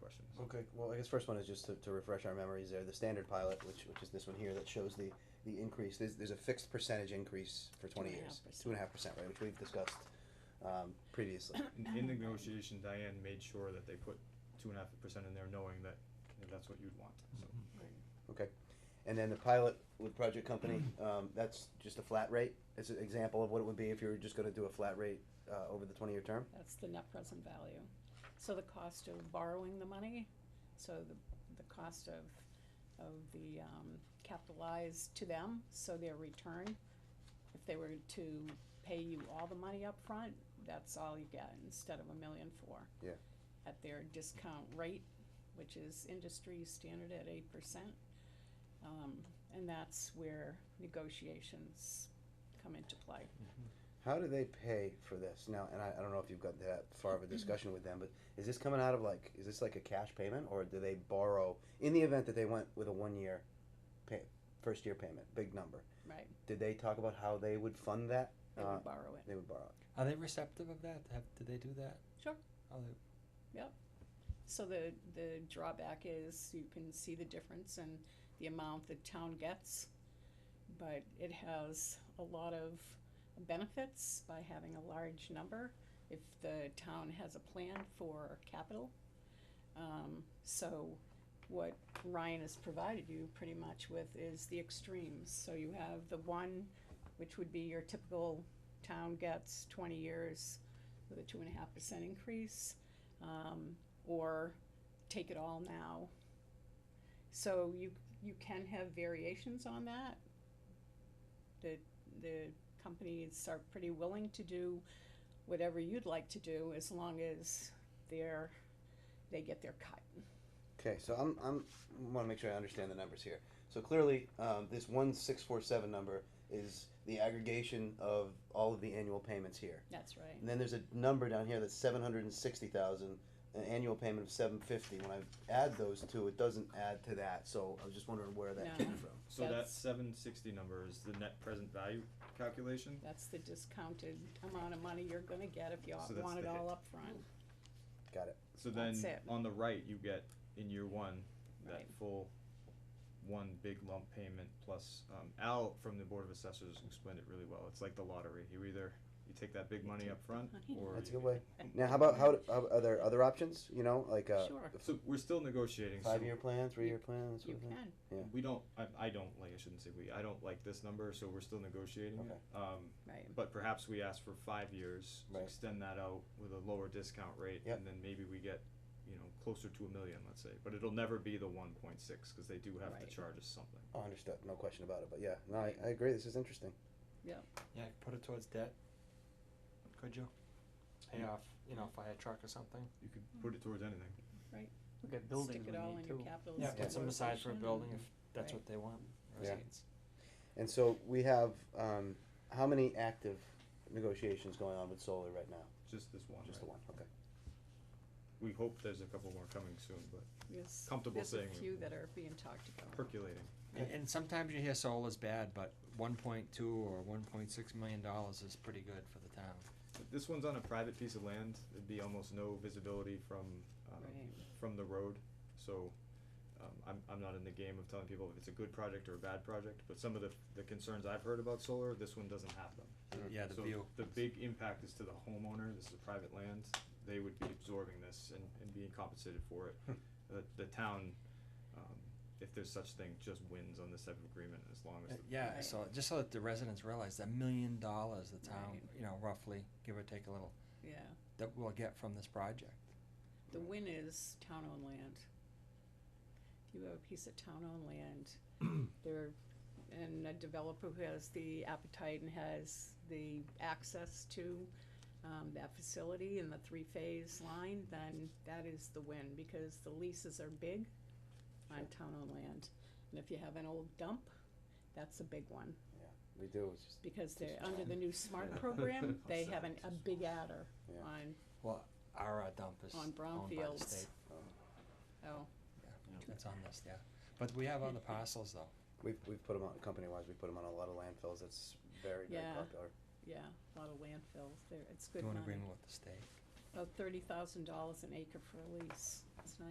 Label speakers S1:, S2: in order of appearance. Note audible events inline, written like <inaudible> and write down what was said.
S1: questions.
S2: Okay, well, I guess first one is just to, to refresh our memories there, the standard pilot, which, which is this one here, that shows the, the increase, there's, there's a fixed percentage increase for twenty
S3: Two and a
S2: years.
S3: half percent.
S2: Two and a half percent, right, which we've discussed, um, previously.
S1: In, in negotiation, Diane made sure that they put two and a half percent in there, knowing that you know, that's what you'd want, so.
S2: Okay, and then the pilot with project
S3: <clears throat>
S2: company, um, that's just a flat rate, it's an example of what it would be if you were just gonna do a flat rate, uh, over the twenty-year term?
S3: That's the net present value. So the cost of borrowing the money, so the, the cost of, of the, um, capitalized to them, so their return, if they were to pay you all the money up front, that's all you get instead of a million four.
S2: Yeah.
S3: At their discount rate, which is industry standard at eight percent. Um, and that's where negotiations come into play.
S2: How do they pay for this now? And I, I don't know if you've got that far of a discussion with them, but is this coming out of like is this like a cash payment or do they borrow in the event that they went with a one year, pay, first year payment, big number?
S3: Right.
S2: Did they talk about how they would fund that?
S3: They
S2: uh,
S3: would borrow it.
S2: they would borrow. it.
S4: Are they receptive of that? Have, do they do that?
S3: Sure.
S4: Are they,
S3: So the, the drawback is you can see the difference in the amount the town gets, but it has a lot of benefits by having a large number if the town has a plan for capital. Um, so what Ryan has provided you pretty much with is the extremes. So you have the one, which would be your typical town gets twenty years with a two and a half percent increase. Um, or take it all now. So you, you can have variations on that. The, the companies are pretty willing to do whatever you'd like to do as long as they're, they get their cut.
S2: Okay, so I'm I'm want to make sure I understand the numbers here. So clearly, um, this one six four seven number is the aggregation of all of the annual payments here.
S3: That's right.
S2: And then there's a number down here that's seven hundred and sixty thousand, an annual payment of seven fifty. When I add those two, it doesn't add to that, so I was just wondering where that came
S3: No.
S2: from.
S1: So that
S3: That's-
S1: seven sixty number is the net present value calculation,
S3: That's the discounted amount of money you're gonna get if you all
S1: So that's
S3: want it
S1: the hit.
S3: all up front.
S2: Got it.
S1: so then
S3: That's it.
S1: on the right, you get in year one, that
S3: Right.
S1: full one big lump payment plus, um, Al from the Board of Assessors explained it really well, it's like the lottery, you either, you take that big money up front
S3: money.
S1: or.
S2: That's a
S1: you-
S2: good way. Now, how about how, how are there other options? You know, like a
S3: Sure.
S1: So we're still negotiating, so
S2: five year plan, three year plan, that sort
S3: You
S2: of thing.
S3: can,
S2: Yeah.
S1: we don't, I, I don't like, I shouldn't say we, I don't like this number, so we're still negotiating
S2: Okay.
S1: it. Um,
S3: right.
S1: But perhaps we ask for five years, to
S2: Right.
S1: extend that out with a lower discount rate,
S2: Yep.
S1: and then maybe we get, you know, closer to a million, let's say, but it'll never be the one point six, cause they do have to
S3: Right.
S1: charge us something.
S2: Oh, understood. No question about it. But yeah, no, I, I agree. This is interesting.
S4: yeah, put it towards debt. Could you? Pay off, you know, fire truck or something.
S1: You could put it towards anything.
S4: Look at
S3: Stick it all in your capital.
S4: Yeah, put some aside for a
S3: stabilization
S4: building
S3: and-
S4: if that's
S3: Right.
S4: what they want.
S2: Yeah.
S4: Receipts.
S2: And so we have um, how many active negotiations going on with solar right now?
S1: Just this one,
S2: Just the
S1: right?
S2: one. Okay.
S1: We hope there's a couple more coming soon, but
S3: Yes.
S1: comfortable saying
S3: There's
S1: we-
S3: a few that are being talked about.
S1: percolating.
S4: And, and sometimes you hear solar's bad, but one point two or one point six million dollars is pretty good for the town.
S1: But This one's on a private piece of land, there'd be almost no visibility from, um,
S3: Right.
S1: from the road, so. Um, I'm, I'm not in the game of telling people if it's a good project or a bad project, but some of the, the concerns I've heard about solar, this one doesn't have them.
S2: Mm.
S4: Yeah, the
S1: So
S4: view.
S1: The big impact is to the homeowner, this is a private land, they would be absorbing this and, and being compensated for
S4: Hmm.
S1: it. The, the town, um, if there's such thing, just wins on this type of agreement as long
S4: Uh,
S1: as. the-
S4: Yeah,
S3: Right.
S4: so just so that the residents realize that million dollars the town,
S3: Right.
S4: you know, roughly give or take a little,
S3: Yeah.
S4: that we'll get from this project.
S3: The win is town-owned land. If you have a piece of town-owned land,
S2: <clears throat>
S3: there, and a developer who has the appetite and has the access to, um, that facility and the three-phase line, then that is the win, because the leases are big on town-owned land. And if you have an old dump, that's a big one,
S2: We do. It's just
S3: because they're, under the new SMART
S2: <laughs>
S3: program, they have an, a big adder
S2: Yeah.
S3: on,
S4: Well, our uh, dump is
S3: On
S4: owned by the
S3: brownfields.
S4: state.
S3: oh,
S4: It's on this, yeah. But we have other parcels though.
S2: We've, we've put them on, company-wise, we put them on a lot of landfills, it's very, very
S3: Yeah.
S2: popular.
S3: yeah, a lot of landfills there, it's good
S4: Do an
S3: money. Oh,
S4: agreement with the state.
S3: of thirty thousand dollars an acre for a lease, it's not